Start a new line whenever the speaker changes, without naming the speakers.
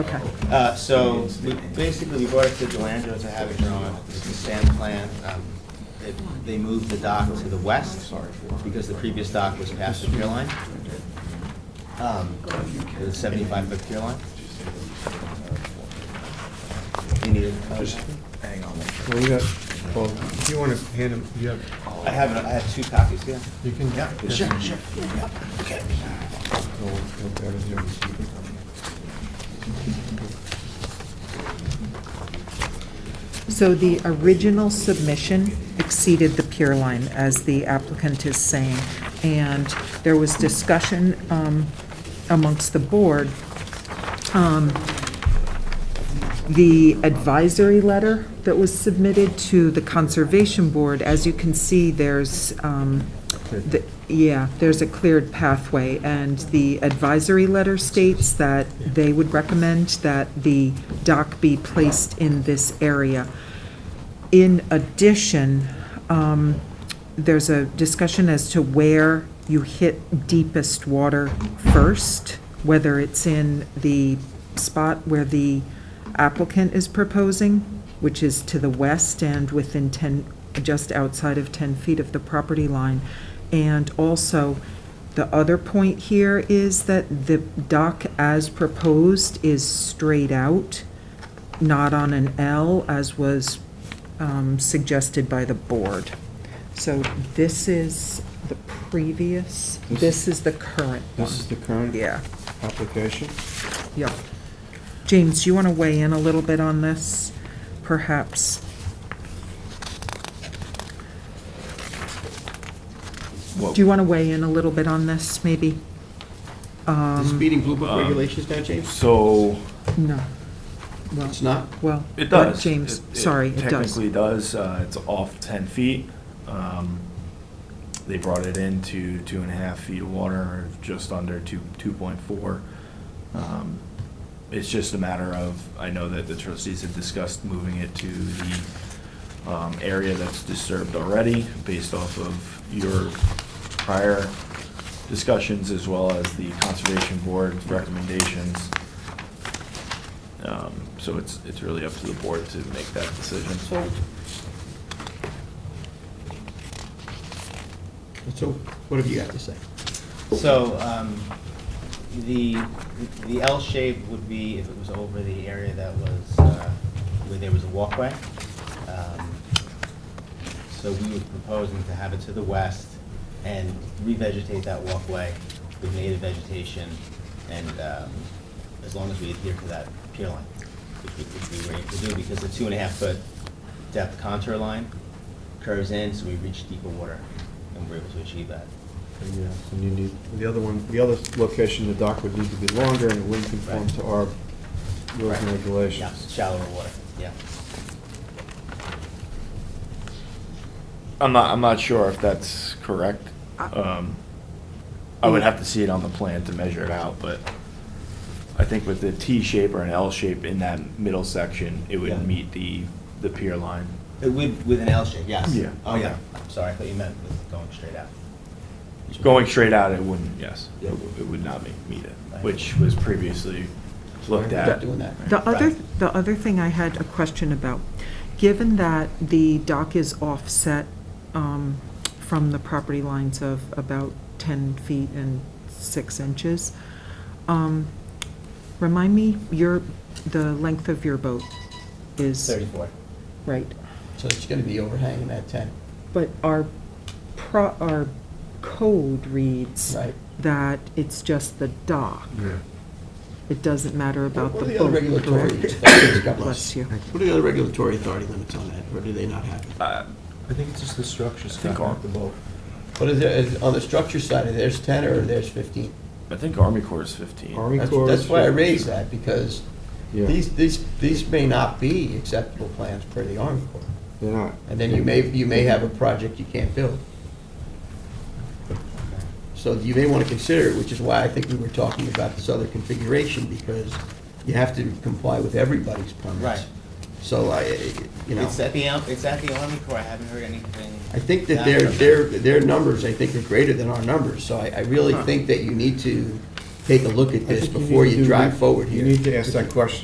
Okay.
Uh, so, we, basically, we brought it to Delandro to have it drawn, it's the sand plan. Um, They they moved the dock to the west, because the previous dock was past the pier line. Um, The seventy-five foot pier line. You need a-
Well, you got, well, if you want to hand him, you have,
I have, it- I have two copies, yeah.
you can.
Sure, sure, yeah, okay.
So the original submission exceeded the pier line, as the applicant is saying, and there was discussion um, amongst the board. Um, The advisory letter that was submitted to the Conservation Board, as you can see, there's, um, the- yeah, there's a cleared pathway, and the advisory letter states that they would recommend that the dock be placed in this area. In addition, um, there's a discussion as to where you hit deepest water first, whether it's in the spot where the applicant is proposing, which is to the west and within 10, just outside of 10 feet of the property line. And also, the other point here is that the dock as proposed is straight out, not on an L, as was um, suggested by the board. So this is the previous, this is the current one.
This is the current
Yeah,
application.
yeah. James, you want to weigh in a little bit on this, perhaps? Do you want to weigh in a little bit on this, maybe? Um,
The speeding blue book regulations now, James?
So,
No. Well,
It's not?
well.
it
but
does.
James,
It- it
sorry, it does.
Technically does, uh, it's off ten feet. Um, They brought it in to two and a half feet of water, just under two, two point four. Um, It's just a matter of, I know that the trustees have discussed moving it to the um, area that's disturbed already, based off of your prior discussions, as well as the Conservation Board recommendations. Um, So it's, it's really up to the board to make that decision.
So what have you got to say?
So, um, the, the L shape would be if it was over the area that was, uh, where there was a walkway. Um, So we were proposing to have it to the west and revegetate that walkway with native vegetation and, um, as long as we adhere to that pier line, which we, which we were able to do because the two and a half foot depth contour line curves in, so we reach deeper water and we're able to achieve that.
Yeah, and you need, the other one, the other location, the dock would need to be longer and it wouldn't conform to our rules and
Right. Yeah,
regulations.
shallower water, yeah.
I'm not, I'm not sure if that's correct. Um, I would have to see it on the plan to measure it out, but I think with the T shape or an L shape in that middle section, it
Yeah.
would meet the, the pier line.
Uh, With, with an L shape, yes.
Yeah.
Oh, yeah, I'm sorry, I thought you meant with going straight out.
Going straight out, it wouldn't, yes, it
Yeah.
w- it would not meet, meet it,
Right.
which was previously looked
We're not
at.
doing that.
The other,
Right.
the other thing I had a question about, given that the dock is offset um, from the property lines of about 10 feet and 6 inches, um, remind me, your, the length of your boat is...
Thirty-four.
Right,
So it's gonna be overhanging that tent,
but our, pro our code reads
right?
that it's just the dock.
Yeah.
It doesn't matter about the
What
boat.
are the other regulatory
correct?
authorities? God
Bless
bless.
you.
What are the other regulatory authority limits on that, or do they not have it?
Uh,
I think it's just the structure,
Scott, not the
boat.
What is there, is- on the structure side, there's ten or there's fifteen?
I think Army Corps is 15.
Army
That's
Corps.
that's why I raised that, because
Yeah.
these, these, these may not be acceptable plans per the Army Corps.
They're not.
And then you may, you may have a project you can't build. So you may want to consider, it, which is why I think we were talking about this other configuration, because you have to comply with everybody's permits.
Right.
So I, you know,
It's at the, Al- it's at the Army Corps, I haven't heard anything.
I think that
back
their,
from
their, their numbers, I think, are greater than our numbers. So I, I really
Huh.
think that you need to take a look at
I
this
think you
before
need to
you
do-
drive forward here.
You need to ask that question